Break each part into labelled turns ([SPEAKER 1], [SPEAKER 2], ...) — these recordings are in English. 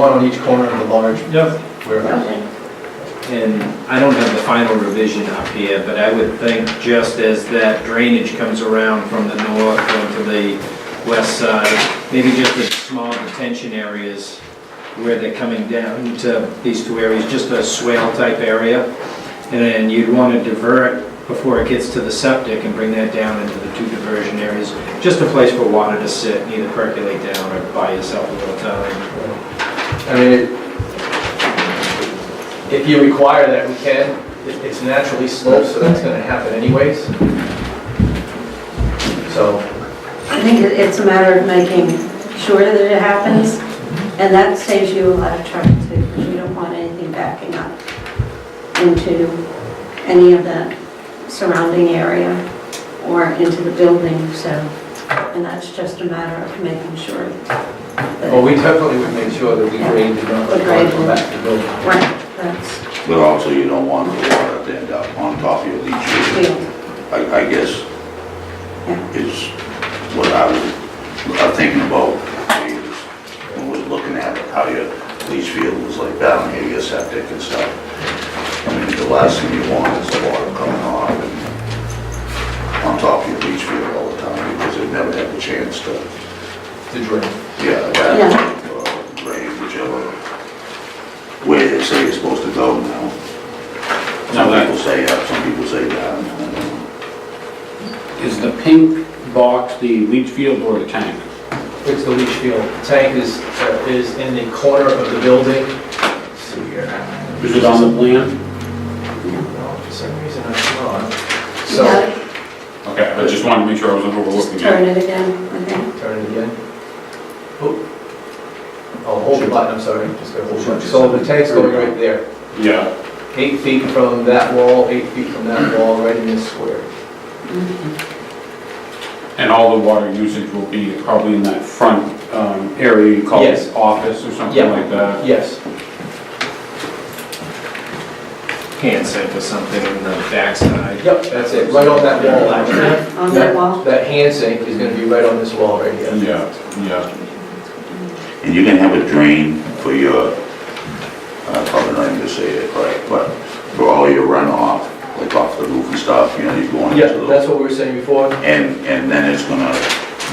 [SPEAKER 1] One on each corner of the large
[SPEAKER 2] Yep.
[SPEAKER 1] warehouse.
[SPEAKER 3] And I don't have the final revision up here, but I would think just as that drainage comes around from the north going to the west side, maybe just the small detention areas where they're coming down to these two areas, just a swale type area. And then you'd want to divert before it gets to the septic and bring that down into the two diversion areas. Just a place for water to sit, and either percolate down or buy yourself a little time.
[SPEAKER 1] I mean, it- if you require that, we can. It- It's naturally sloped, so that's gonna happen anyways. So,
[SPEAKER 4] I think it- it's a matter of making sure that it happens, and that saves you a lot of trouble too, because you don't want anything backing up into any of the surrounding area or into the building, so, and that's just a matter of making sure
[SPEAKER 1] well,
[SPEAKER 4] that,
[SPEAKER 1] we definitely would make sure that we grade did not let water go back to the building.
[SPEAKER 4] right, that's
[SPEAKER 5] But also you don't want the water to end up on top of your leach field.
[SPEAKER 4] real.
[SPEAKER 5] I, I guess is what I was uh, thinking about is when we're looking at it, how your leach field was like down here, your septic and stuff. I mean, the last thing you want is the water coming off and on top of your leach field all the time because it never had the chance to,
[SPEAKER 1] To drain.
[SPEAKER 5] yeah, that, uh, rain, whichever way they say it's supposed to go now. Some people say up, some people say down. I don't know.
[SPEAKER 6] Is the pink box the leach field or the tank?
[SPEAKER 1] It's the leach field. Tank is, uh, is in the corner of the building. Let's See here.
[SPEAKER 6] Is it on the plan?
[SPEAKER 1] No, For some reason, I don't know. So,
[SPEAKER 4] Yeah,
[SPEAKER 6] Okay, I just wanted to make sure I wasn't
[SPEAKER 4] just
[SPEAKER 6] overlooking it.
[SPEAKER 4] turn it again, I think.
[SPEAKER 1] turn it again. Oh, Oh, hold the button, I'm sorry. Just gotta hold the button. So the tank's going right there.
[SPEAKER 6] Yeah,
[SPEAKER 1] eight feet from that wall, eight feet from that wall, right in this square.
[SPEAKER 6] and all the water usage will be probably in that front um, area you call
[SPEAKER 1] Yes.
[SPEAKER 6] office or something
[SPEAKER 1] Yeah.
[SPEAKER 6] like that?
[SPEAKER 1] Yes,
[SPEAKER 3] Hand sink or something in the backside.
[SPEAKER 1] yep, that's it, right on that wall, actually.
[SPEAKER 4] On that wall,
[SPEAKER 1] That hand sink is gonna be right on this wall right here.
[SPEAKER 6] Yeah, yeah.
[SPEAKER 5] And you can have a drain for your, uh, I'm probably not even gonna say it right, but for all your runoff, like off the roof and stuff, you know, you're going
[SPEAKER 1] Yeah,
[SPEAKER 5] into the...
[SPEAKER 1] that's what we were saying before,
[SPEAKER 5] And, and then it's gonna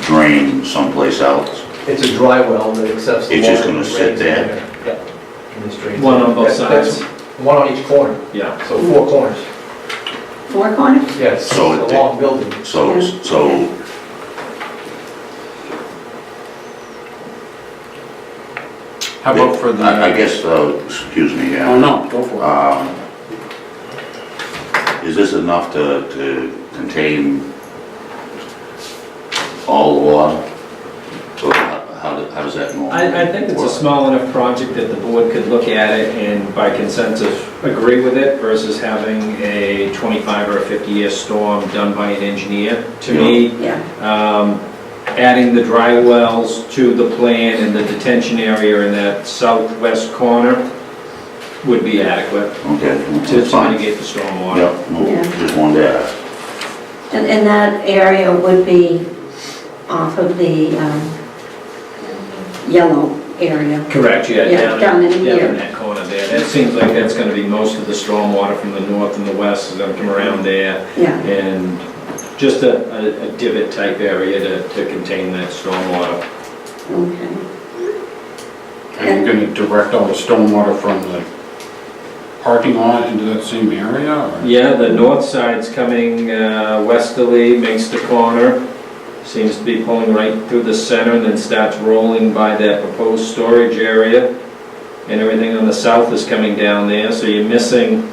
[SPEAKER 5] drain someplace else.
[SPEAKER 1] it's a dry well that accepts the
[SPEAKER 5] It's
[SPEAKER 1] water.
[SPEAKER 5] just gonna
[SPEAKER 1] and
[SPEAKER 5] sit
[SPEAKER 1] drains
[SPEAKER 5] there.
[SPEAKER 1] in Yeah. And this drains.
[SPEAKER 3] One on both
[SPEAKER 1] That- that's
[SPEAKER 3] sides.
[SPEAKER 1] One on each corner,
[SPEAKER 3] Yeah.
[SPEAKER 1] so four corners,
[SPEAKER 4] four corners?
[SPEAKER 1] yes, it's
[SPEAKER 5] So
[SPEAKER 1] a
[SPEAKER 5] it-
[SPEAKER 1] long building.
[SPEAKER 5] So,
[SPEAKER 4] Yeah.
[SPEAKER 5] so...
[SPEAKER 6] How about for the...
[SPEAKER 5] I I guess, uh, excuse me, yeah.
[SPEAKER 6] Oh, no, go for it.
[SPEAKER 5] Um, Is this enough to, to contain all the water? Or how, how do- how does that normally?
[SPEAKER 3] I, I think it's a
[SPEAKER 5] work?
[SPEAKER 3] small enough project that the board could look at it and by consensus agree with it versus having a 25 or a 50-year storm done by an engineer. To me,
[SPEAKER 4] Yeah.
[SPEAKER 3] um, adding the dry wells to the plan and the detention area in that southwest corner would be adequate
[SPEAKER 5] Okay,
[SPEAKER 3] to
[SPEAKER 5] that's
[SPEAKER 3] to
[SPEAKER 5] fine.
[SPEAKER 3] mitigate the stormwater.
[SPEAKER 5] Yep, no, just wanted to ask.
[SPEAKER 4] And, and that area would be off of the um, yellow area.
[SPEAKER 3] Correct, yeah,
[SPEAKER 4] Yeah,
[SPEAKER 3] down,
[SPEAKER 4] down in
[SPEAKER 3] down
[SPEAKER 4] here.
[SPEAKER 3] in that corner there. That seems like that's gonna be most of the stormwater from the north and the west is gonna come around there.
[SPEAKER 4] Yeah,
[SPEAKER 3] and just a, a- a divot type area to, to contain that stormwater.
[SPEAKER 4] okay.
[SPEAKER 6] Are you going to direct all the stormwater from the parking lot into that same area? or-
[SPEAKER 3] Yeah, the north side's coming uh, westerly, makes the corner, seems to be pulling right through the center and then starts rolling by that proposed storage area. And everything on the south is coming down there, so you're missing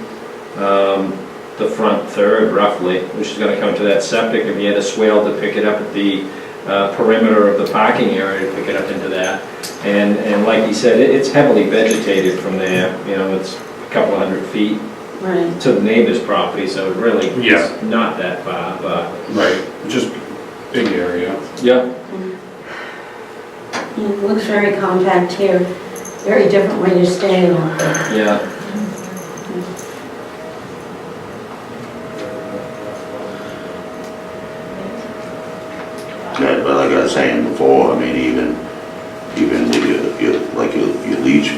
[SPEAKER 3] um, the front third roughly, which is gonna come to that septic if you had a swale to pick it up at the uh, perimeter of the parking area, to pick it up into that. And, and like you said, it- it's heavily vegetated from there, you know, it's a couple hundred feet
[SPEAKER 4] Right,
[SPEAKER 3] to the neighbor's property, so it really
[SPEAKER 6] Yeah.
[SPEAKER 3] is not that far, but,
[SPEAKER 6] Right, just big area.
[SPEAKER 3] yeah.
[SPEAKER 4] it looks very compact here, very different when you're staying off the
[SPEAKER 3] Yeah,